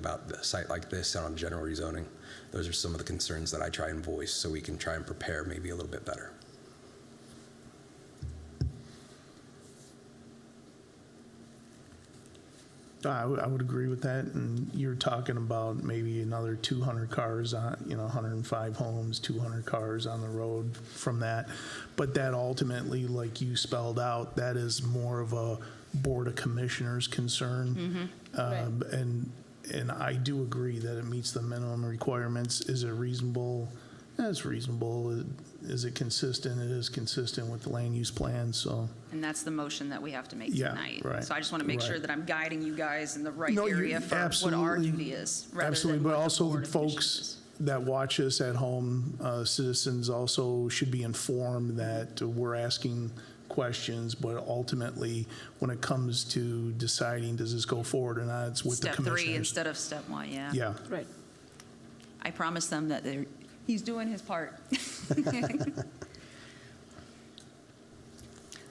about a site like this and on general rezoning. Those are some of the concerns that I try and voice so we can try and prepare maybe a little bit better. I would, I would agree with that, and you're talking about maybe another two hundred cars on, you know, hundred and five homes, two hundred cars on the road from that. But that ultimately, like you spelled out, that is more of a Board of Commissioners concern. Um, and, and I do agree that it meets the minimum requirements. Is it reasonable? Yeah, It's reasonable. Is it consistent? It is consistent with the land use plan, so. And that's the motion that we have to make Yeah, tonight. right, So I just want to make sure right. that I'm guiding you guys in the right No, you- area for what our absolutely, duty is. rather than Absolutely, but what the also Board the of Commissioners folks is. that watch us at home, uh, citizens also should be informed that we're asking questions, but ultimately, when it comes to deciding, does this go forward or not, it's with the Step three commissioners. instead of step one, yeah. Yeah, Right. I promised them that they're, he's doing his part.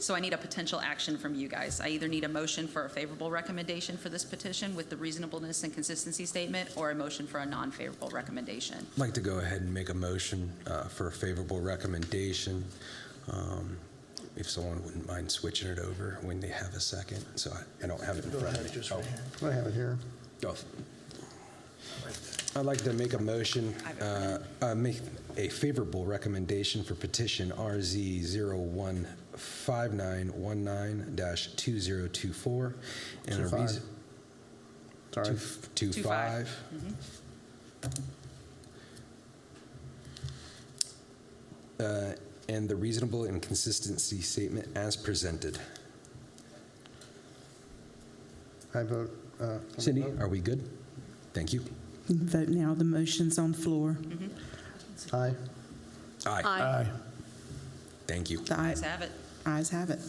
So I need a potential action from you guys. I either need a motion for a favorable recommendation for this petition with the reasonableness and consistency statement, or a motion for a non-favorable recommendation. I'd like to go ahead and make a motion uh, for a favorable recommendation. Um, If someone wouldn't mind switching it over when they have a second, so I- I don't have it in front of me. Oh, I have it here. Oh. I'd like to make a motion, uh, uh, make a favorable recommendation for petition RZ 015919-2024. and a Two five. reas- Sorry. two f- two Two five. five. Uh, And the reasonable and consistency statement as presented. I vote. uh, Cindy, are we good? Thank you. Vote now, the motion's on floor. Aye. Aye. Aye. Aye. Thank you. The aye- Guys have it. ayes have it.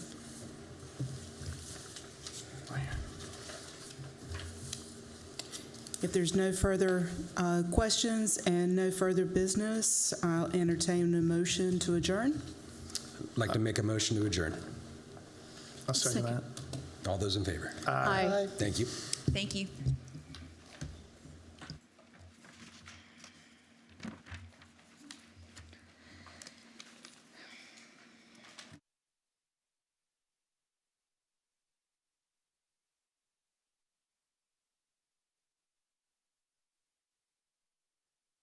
If there's no further uh, questions and no further business, I'll entertain a motion to adjourn. Like to make a motion to adjourn. I'll second that. All those in favor? Aye. Thank you. Thank you.